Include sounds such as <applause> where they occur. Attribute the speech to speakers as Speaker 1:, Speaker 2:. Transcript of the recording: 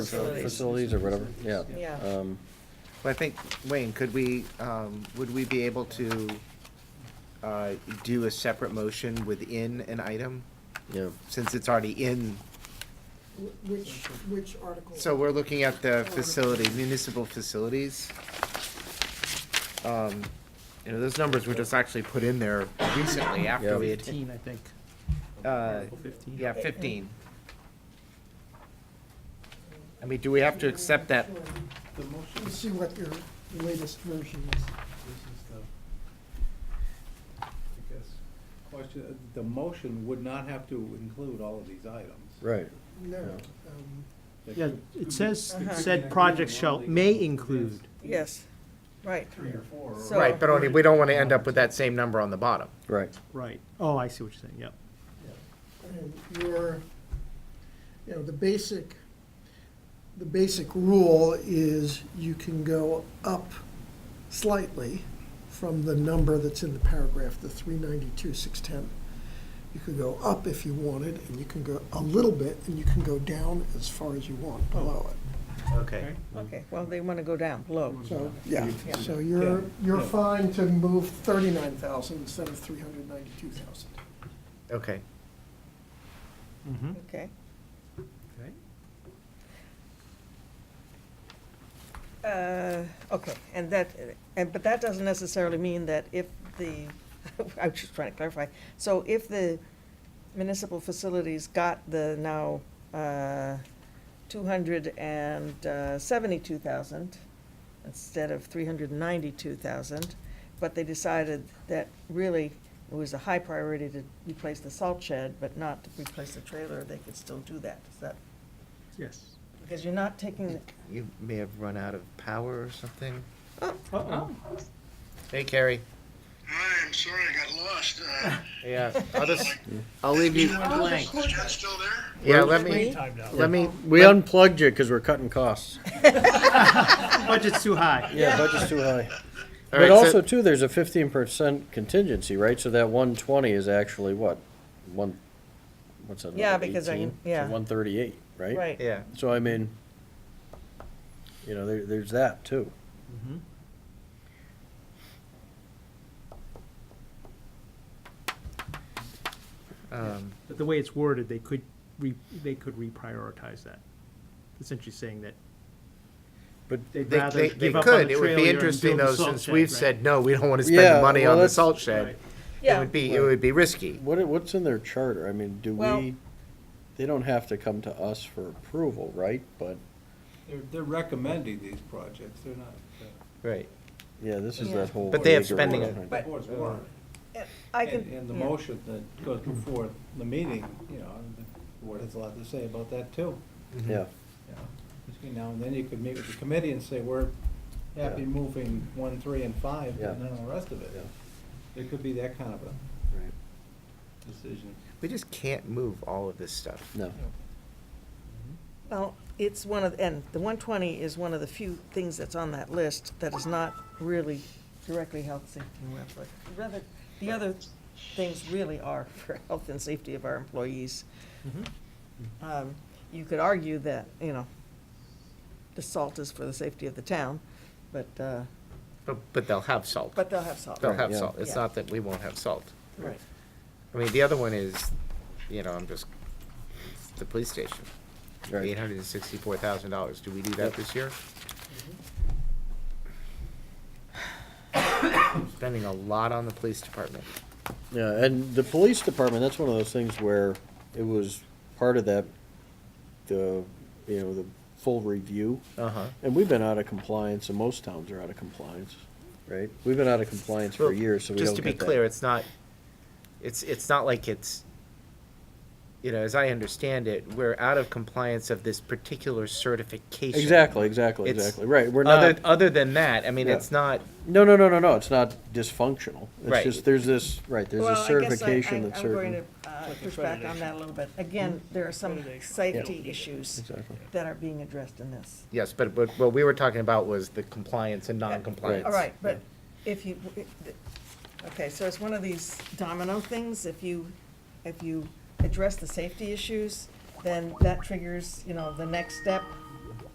Speaker 1: facilities or whatever, yeah.
Speaker 2: Yeah.
Speaker 3: Uh,
Speaker 1: Um,
Speaker 3: Well, I think, Wayne, could we, um, would we be able to uh, do a separate motion within an item,
Speaker 1: Yeah,
Speaker 3: since it's already in?
Speaker 4: Wh- Which, which article?
Speaker 3: So we're looking at the facility, municipal facilities. Um, You know, those numbers were just actually put in there recently
Speaker 1: Yeah.
Speaker 3: after we had,
Speaker 5: Fifteen, I think.
Speaker 3: uh,
Speaker 5: Article fifteen.
Speaker 3: yeah, fifteen. I mean, do we have to accept that?
Speaker 4: Sure.
Speaker 5: The motion,
Speaker 4: Let's
Speaker 5: this
Speaker 4: see what your latest version is.
Speaker 5: is the, I guess, question, uh, the motion would not have to include all of these items.
Speaker 1: right.
Speaker 4: No,
Speaker 1: Yeah.
Speaker 4: um,
Speaker 5: They could-
Speaker 6: it says,
Speaker 4: Uh-huh.
Speaker 5: they could
Speaker 6: said
Speaker 5: include
Speaker 6: projects
Speaker 5: them
Speaker 6: shall,
Speaker 5: all.
Speaker 6: may include.
Speaker 2: Yes, right.
Speaker 5: Three or four. or-
Speaker 2: So-
Speaker 3: Right, but only, we don't want to end up with that same number on the bottom.
Speaker 1: Right,
Speaker 6: Right, oh, I see what you're saying, yep.
Speaker 4: and your, you know, the basic, the basic rule is you can go up slightly from the number that's in the paragraph, the three ninety-two, six ten. You could go up if you wanted, and you can go a little bit, and you can go down as far as you want
Speaker 3: Oh.
Speaker 4: below it.
Speaker 6: Okay.
Speaker 2: Okay, well, they want to go down, low.
Speaker 4: So, yeah,
Speaker 2: Yeah.
Speaker 4: so you're,
Speaker 5: Yeah.
Speaker 4: you're fine to move thirty-nine thousand instead of three hundred ninety-two thousand.
Speaker 3: Okay.
Speaker 6: Mhm.
Speaker 2: Okay.
Speaker 6: Okay.
Speaker 2: Uh, Okay, and that, and, but that doesn't necessarily mean that if the, <laughs> I was just trying to clarify. So if the municipal facilities got the now uh, 272,000 uh, instead of 392,000, but they decided that really it was a high priority to replace the salt shed, but not to replace the trailer, they could still do that. Is that,
Speaker 6: Yes.
Speaker 2: because you're not taking,
Speaker 3: You may have run out of power or something.
Speaker 6: Oh, Uh-oh.
Speaker 3: Hey, Carrie.
Speaker 7: Hi, I'm sorry, I got lost. Uh,
Speaker 3: <laughs> Yeah, I'll just, I'll leave you.
Speaker 7: is Jen still there?
Speaker 3: Yeah, let me, let me,
Speaker 1: we unplugged you because we're cutting costs.
Speaker 6: Budget's too high.
Speaker 1: Yeah, budget's too <laughs> high.
Speaker 3: all
Speaker 1: But
Speaker 3: right,
Speaker 1: also
Speaker 3: so,
Speaker 1: too, there's a fifteen percent contingency, right? So that one twenty is actually what, one, what's that?
Speaker 2: Yeah,
Speaker 1: number?
Speaker 2: because I-
Speaker 1: 18?
Speaker 2: yeah.
Speaker 1: So one thirty-eight, right?
Speaker 2: right.
Speaker 3: yeah,
Speaker 1: So I mean, you know, there, there's that too.
Speaker 3: um,
Speaker 6: But the way it's worded, they could re, they could reprioritize that. Essentially saying that
Speaker 1: But
Speaker 6: they'd
Speaker 3: they,
Speaker 6: rather
Speaker 3: they, they
Speaker 6: give up on the
Speaker 3: could. It would be
Speaker 6: trailer and
Speaker 3: interesting
Speaker 6: build
Speaker 3: though,
Speaker 6: the salt
Speaker 3: since
Speaker 6: shed,
Speaker 3: we've
Speaker 6: right?
Speaker 3: said, no, we don't want to
Speaker 1: Yeah,
Speaker 3: spend the money
Speaker 1: well,
Speaker 3: on the
Speaker 1: that's-
Speaker 3: salt shed.
Speaker 6: Right.
Speaker 3: It
Speaker 2: Yeah,
Speaker 3: would be, it would be risky.
Speaker 1: what, what's in their charter? I mean, do
Speaker 2: Well-
Speaker 1: we, they don't have to come to us for approval, right? But,
Speaker 5: They're, they're recommending these projects, they're not, uh,
Speaker 3: Right.
Speaker 1: yeah, this is
Speaker 2: Yeah.
Speaker 1: that whole.
Speaker 3: But they have
Speaker 1: acre
Speaker 3: spending
Speaker 1: one.
Speaker 3: it.
Speaker 5: the
Speaker 2: But-
Speaker 5: board's
Speaker 4: uh,
Speaker 5: warrant.
Speaker 2: I
Speaker 5: And,
Speaker 2: can.
Speaker 5: and the
Speaker 2: yeah.
Speaker 5: motion that goes before the meeting, you know, the board has a lot to say about that too.
Speaker 1: Mm-hmm. Yeah,
Speaker 5: you know. Between now and then, you could meet with the committee and say, we're happy
Speaker 1: Yeah.
Speaker 5: moving one, three, and five,
Speaker 1: Yeah.
Speaker 5: but none of the rest of it.
Speaker 1: Yeah.
Speaker 5: It could be that kind of a
Speaker 1: right,
Speaker 5: decision.
Speaker 3: We just can't move all of this stuff.
Speaker 1: no.
Speaker 2: Well, it's one of, and the one twenty is one of the few things that's on that list that is not really directly health, safety, and welfare. Rather, the other things really are <laughs> for health and safety of our employees.
Speaker 5: Mm-hmm.
Speaker 2: Um, You could argue that, you know, the salt is for the safety of the town, but, uh,
Speaker 3: But, but they'll have salt.
Speaker 2: but they'll have salt.
Speaker 3: They'll have
Speaker 1: yeah.
Speaker 3: salt. It's
Speaker 2: Yeah.
Speaker 3: not that we won't have salt.
Speaker 2: Right.
Speaker 3: I mean, the other one is, you know, I'm just, it's the police station.
Speaker 1: Right.
Speaker 3: Eight hundred and sixty-four thousand dollars. Do we do that this year?
Speaker 1: Mm-hmm.
Speaker 3: Spending a lot on the police department.
Speaker 1: Yeah, and the police department, that's one of those things where it was part of that, the, you know, the full review.
Speaker 3: Uh-huh.
Speaker 1: And we've been out of compliance, and most towns are out of compliance, right? We've been out of compliance for
Speaker 3: Well,
Speaker 1: years, so we
Speaker 3: Just
Speaker 1: don't
Speaker 3: to be
Speaker 1: get that.
Speaker 3: clear, it's not, it's, it's not like it's, you know, as I understand it, we're out of compliance of this particular certification.
Speaker 1: Exactly, exactly,
Speaker 3: It's- uh,
Speaker 1: exactly, right, we're
Speaker 3: Other,
Speaker 1: not,
Speaker 3: other than that, I mean,
Speaker 1: Yeah.
Speaker 3: it's not,
Speaker 1: no, no, no, no, no, it's not dysfunctional. It's
Speaker 3: Right.
Speaker 1: just, there's this, right, there's a certification that's
Speaker 2: Well, I guess
Speaker 1: certain.
Speaker 2: I- I, I'm going to uh, push back on that a little bit. Again, there are some safety issues
Speaker 1: Exactly.
Speaker 2: that are being addressed in this.
Speaker 3: yes, but, but what we were talking about was the compliance and non-compliance.
Speaker 2: All right, but if you, okay, so it's one of these domino things, if you, if you address the safety issues, then that triggers, you know, the next step,